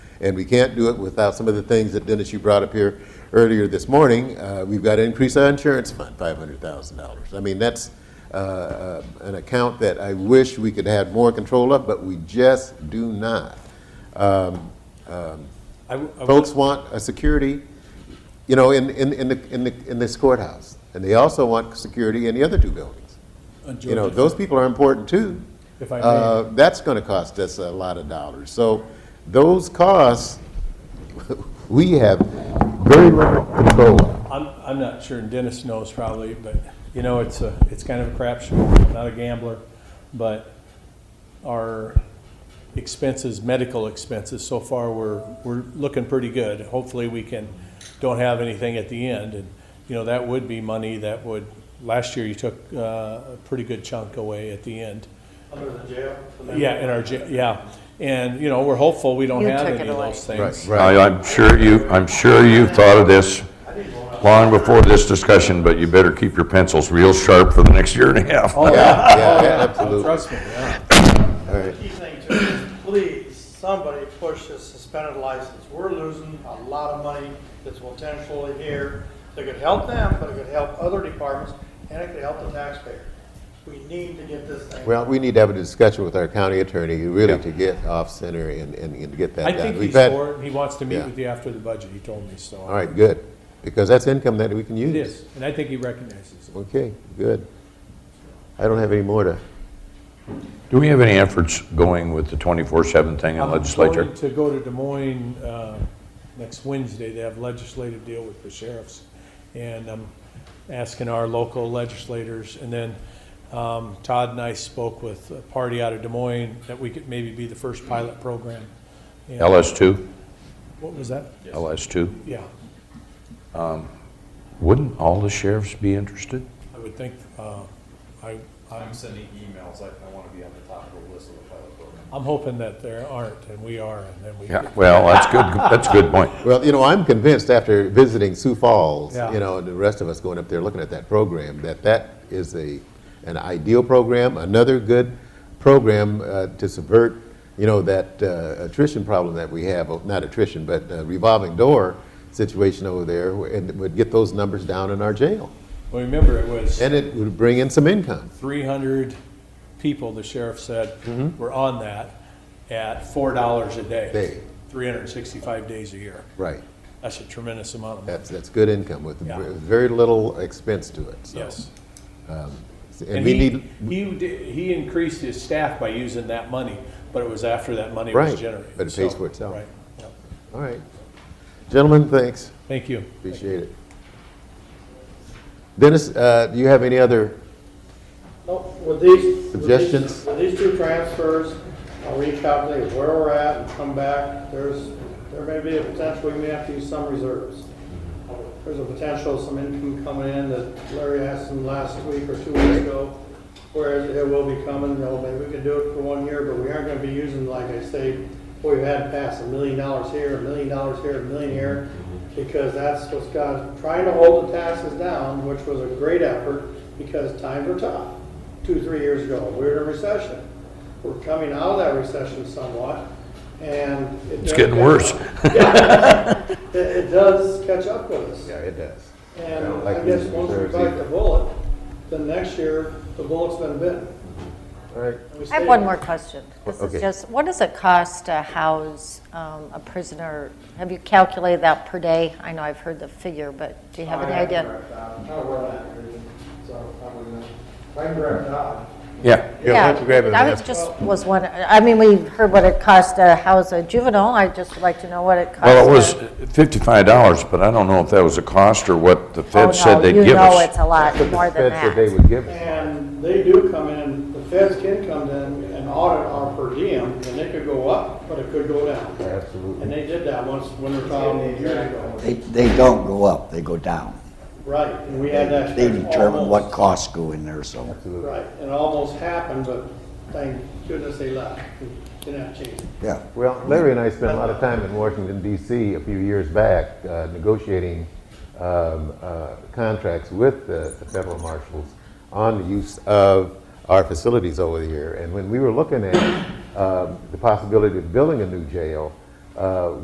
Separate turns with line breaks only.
And we can't do it without some of the things that Dennis, you brought up here earlier this morning. Uh, We've got to increase our insurance fund, $500,000. I mean, that's uh, uh, an account that I wish we could have more control of, but we just do not.
I w- I
Folks want a security, you know, in, in, in the, in the, in this courthouse. And they also want security in the other two buildings.
would enjoy
You know,
that.
those people are important too.
If I may.
Uh, That's going to cost us a lot of dollars. So those costs, we have very little control of.
I'm, I'm not sure, and Dennis knows probably, but, you know, it's a, it's kind of a crapshoot. I'm not a gambler, but our expenses, medical expenses, so far, we're, we're looking pretty good. Hopefully, we can, don't have anything at the end. And, you know, that would be money that would, last year, you took uh, a pretty good chunk away at the end.
Under the jail?
Yeah, in our, j- yeah. And, you know, we're hopeful we don't
You
have
took
any
it
of
away.
those things.
Right.
I- I'm sure you, I'm sure you thought of this long before this discussion, but you better keep your pencils real sharp for the next year and a half.
Oh,
Yeah, yeah,
yeah.
absolutely.
Trust me, yeah.
All right.
Key thing too is, please, somebody push this suspended license. We're losing a lot of money that's potentially here. That could help them, but it could help other departments, and it could help the taxpayer. We need to get this thing.
Well, we need to have a discussion with our county attorney, really, to get off center and, and and get that
I
done.
think
We've
he's
had-
for it. He wants to meet
Yeah.
with you after the budget, he told me, so.
All right, good, because that's income that we can use.
It is, and I think he recognizes it.
Okay, good. I don't have any more to,
Do we have any efforts going with the 24/7 thing in
I'm
legislature?
going To go to Des Moines, uh, next Wednesday, they have legislative deal with the sheriffs. And I'm asking our local legislators, and then, um, Todd and I spoke with a party out of Des Moines that we could maybe be the first pilot program. And-
LS2?
What was that?
LS2?
Yeah,
Wouldn't all the sheriffs be interested?
I would think, uh, I, I'm
I'm sending emails, I, I wanna be on the top of the list of the pilot program.
I'm hoping that there aren't, and we are, and then we.
Yeah, well, that's good, that's a good point.
well, you know, I'm convinced after visiting Sioux Falls,
Yeah.
you know, and the rest of us going up there looking at that program, that that is a, an ideal program, another good program uh, to subvert, you know, that uh, attrition problem that we have, oh, not attrition, but uh, revolving door situation over there, wh- and it would get those numbers down in our jail.
Well, remember, it was
And it would bring in some income.
300 people, the sheriff
Mm-hmm.
said, were on that at $4 a day.
Day.
365 days a year.
Right.
That's a tremendous amount of money.
That's, that's good income with
Yeah.
v- very little expense to it, so.
Yes.
And we
he-
need,
He, di- he increased his staff by using that money, but it was after that money
Right,
was generated.
but it pays
so,
for itself.
right, yep.
all right. Gentlemen, thanks.
Thank you.
Appreciate it. Dennis, uh, do you have any other,
No, with these. with these-
Suggestions?
With these two transfers, I'll recalculate where we're at and come back. There's, there may be a potential, we may have to use some reserves. There's a potential, some income coming in that Larry asked him last week or two weeks ago, whereas it will be coming, you know, maybe we could do it for one year, but we aren't gonna be using, like I say, we've had past a million dollars here, a million dollars here, a million here, because that's what's got, trying to hold the taxes down, which was a great effort, because times were tough two, three years ago. We were in a recession. We're coming out of that recession somewhat, and. it
It's
does
getting
catch
worse.
up. Yeah. It, it does catch up with us.
yeah, it does.
And
Like
I guess
using
once we
reserves
bite
either.
the bullet, then next year, the bullet's been bitten.
All right.
And we
I have
stay-
one more question. This
Okay.
is just, what does it cost to house um, a prisoner? Have you calculated that per day? I know I've heard the figure, but do you have any idea?
I'm not aware of that, really. so I wouldn't know. If I can grab that.
Yeah.
Yeah, why don't you grab it,
I
ma'am?
was just, was one, I mean, we heard what it costs to house a juvenile. I just would like to know what it costs.
Well, it was
to-
$55, but I don't know if that was a cost or what the
Oh,
Fed said
no,
they'd give us.
You know it's a lot
But the
more than
feds said They
that.
would give, us.
And they do come in, the feds can come in and audit our per diem, and it could go up, but it could go down.
absolutely.
And they did that once, when we found a year ago.
They, they don't go up, they go down.
Right, and we had that.
They determine what
almost-
costs go in there, so.
Right, and it almost happened, but thank goodness they left. Didn't have to change it.
Yeah,
Well, Larry and I spent a lot of time in Washington DC a few years back uh, negotiating um, uh, contracts with the the federal marshals on the use of our facilities over here. And when we were looking at um, the possibility of building a new jail, uh,